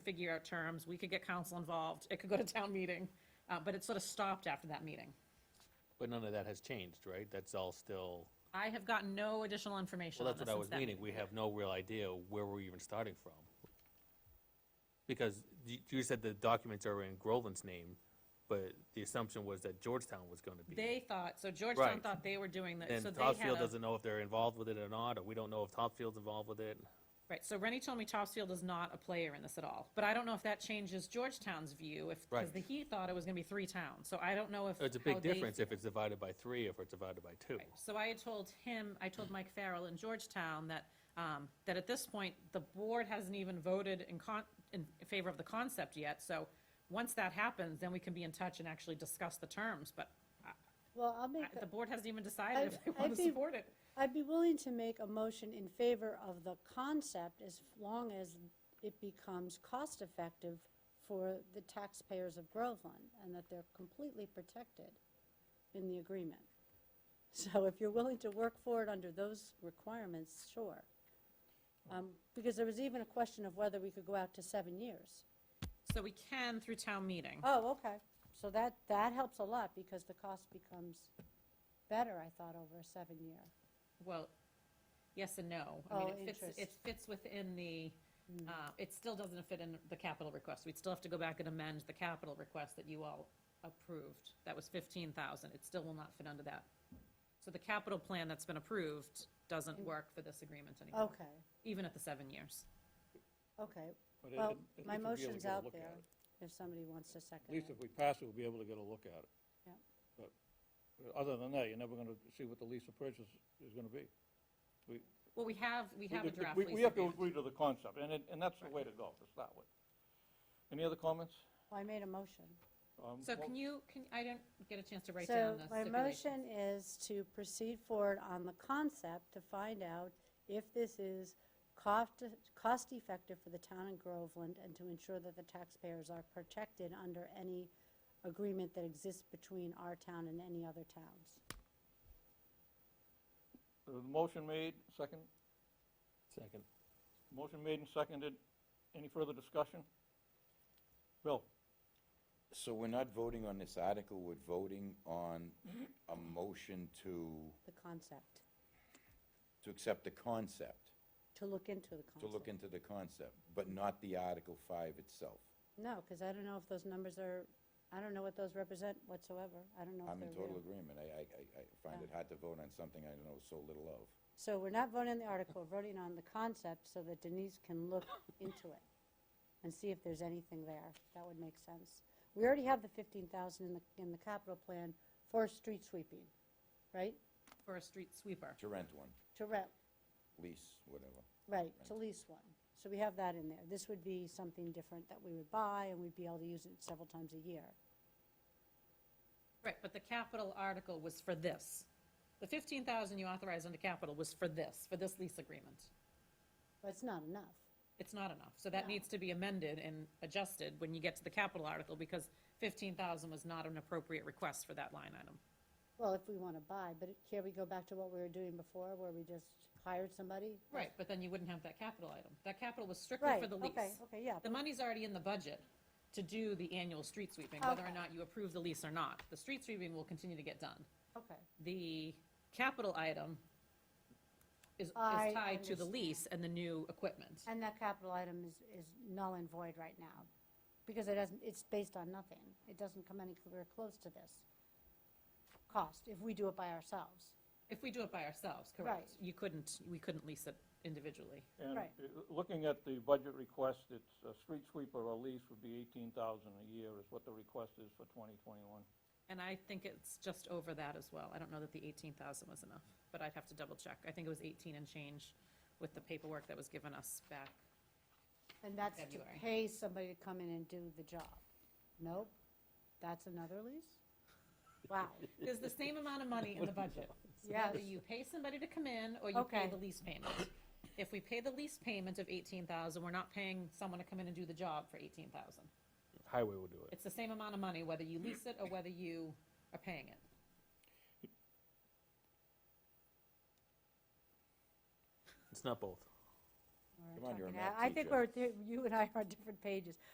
figure out terms, we could get council involved, it could go to town meeting, uh, but it sort of stopped after that meeting. But none of that has changed, right? That's all still, I have gotten no additional information well, on that's this what I since was that meaning. We have no real idea where we're even starting from. Because you, you said the documents are in Groveland's name, but the assumption was that Georgetown was gonna be. They thought, so Georgetown Right. thought they were doing that, And so they had Topsfield a, doesn't know if they're involved with it or not, or we don't know if Topsfield's involved with it. right, so Rennie told me Topsfield is not a player in this at all. But I don't know if that changes Georgetown's view, if, because Right. the he thought it was gonna be three towns, so I don't know if. It's a how big they difference feel. if it's divided by three, or if it's divided by two. So I had told him, I told Mike Farrell in Georgetown that, um, that at this point, the board hasn't even voted in con, in favor of the concept yet, so once that happens, then we can be in touch and actually discuss the terms, but Well, I'll I- make, the a- board hasn't even decided if I'd- they want I'd to be- support it. I'd be willing to make a motion in favor of the concept as long as it becomes cost-effective for the taxpayers of Groveland and that they're completely protected in the agreement. So if you're willing to work for it under those requirements, sure. Um, Because there was even a question of whether we could go out to seven years. So we can through town meeting. Oh, okay. So that, that helps a lot because the cost becomes better, I thought, over a seven-year. Well, yes and no. I mean, Oh, it fits, it interest. Hmm. fits within the, uh, it still doesn't fit in the capital request. We'd still have to go back and amend the capital request that you all approved. That was fifteen thousand. It still will not fit under that. So the capital plan that's been approved doesn't Hmm. work for this agreement anymore. Okay, Even at the seven years. okay. But it- Well, it- at my least we'll be able to motion's get a out look at there, it. if somebody wants to second At least it. if we pass it, we'll be able to get a look at it. Yep. But uh, other than that, you're never going to see what the lease of purchase is going to be. We- Well, we have, we have a we- draft we- lease We have to agreement. agree to the concept, and it, and that's the way to go, to start with. Any other comments? Well, I made a motion. Um, So well, can you, can, I didn't get a chance to write So down the my stipulation. motion is to proceed forward on the concept to find out if this is cost, cost-effective for the town in Groveland and to ensure that the taxpayers are protected under any agreement that exists between our town and any other towns. The uh, motion made, second, Second. motion made and seconded. Any further discussion? Bill? So we're not voting on this article, we're voting on a motion to, the concept, to accept the concept, to look into the concept. to look into the concept, but not the Article Five itself. No, because I don't know if those numbers are, I don't know what those represent whatsoever. I don't know if I'm they're in real. total agreement. I, I, I- I find it hard to vote on something I know so little of. So we're not voting on the article, we're voting on the concept so that Denise can look into it and see if there's anything there. That would make sense. We already have the 15,000 in the, in the capital plan for street sweeping, right? For a street sweeper. To rent one, To rent, lease, whatever. right, to lease one. So we have that in there. This would be something different that we would buy and we'd be able to use it several times a year. Right, but the capital article was for this. The fifteen thousand you authorized under capital was for this, for this lease agreement. But it's not enough. It's not enough, so that needs to be amended and adjusted when you get to the capital article, because fifteen thousand was not an appropriate request for that line item. Well, if we want to buy, but it- here we go back to what we were doing before, where we just hired somebody? Right, but then you wouldn't have that capital item. That capital was strictly Right, for the lease. okay, okay, yeah. The money's already in the budget to do the annual street sweeping, whether or Okay. not you approve the lease or not. The street sweeping will continue to get done. Okay. the capital item is, is I tied to the understand. lease and the new equipment. And that capital item is, is null and void right now, because it doesn't, it's based on nothing. It doesn't come anywhere close to this cost, if we do it by ourselves. If we do it by ourselves, correct? Right. You couldn't, we couldn't lease it individually. And Right. uh, looking at the budget request, it's a street sweeper or lease would be eighteen thousand a year is what the request is for twenty twenty-one. And I think it's just over that as well. I don't know that the eighteen thousand was enough, but I'd have to double check. I think it was eighteen and change with the paperwork that was given us back. And that's to February. pay somebody to come in and do the job. Nope, that's another lease? Wow, There's the same amount of money in the budget. yes, Whether you pay somebody to come in or you pay Okay. the lease payment. If we pay the lease payment of eighteen thousand, we're not paying someone to come in and do the job for eighteen thousand. Highway will do it. It's the same amount of money, whether you lease it or whether you are paying it. It's not both. we're Come on, you're a talking- math I think teacher. we're, you and I are on different pages.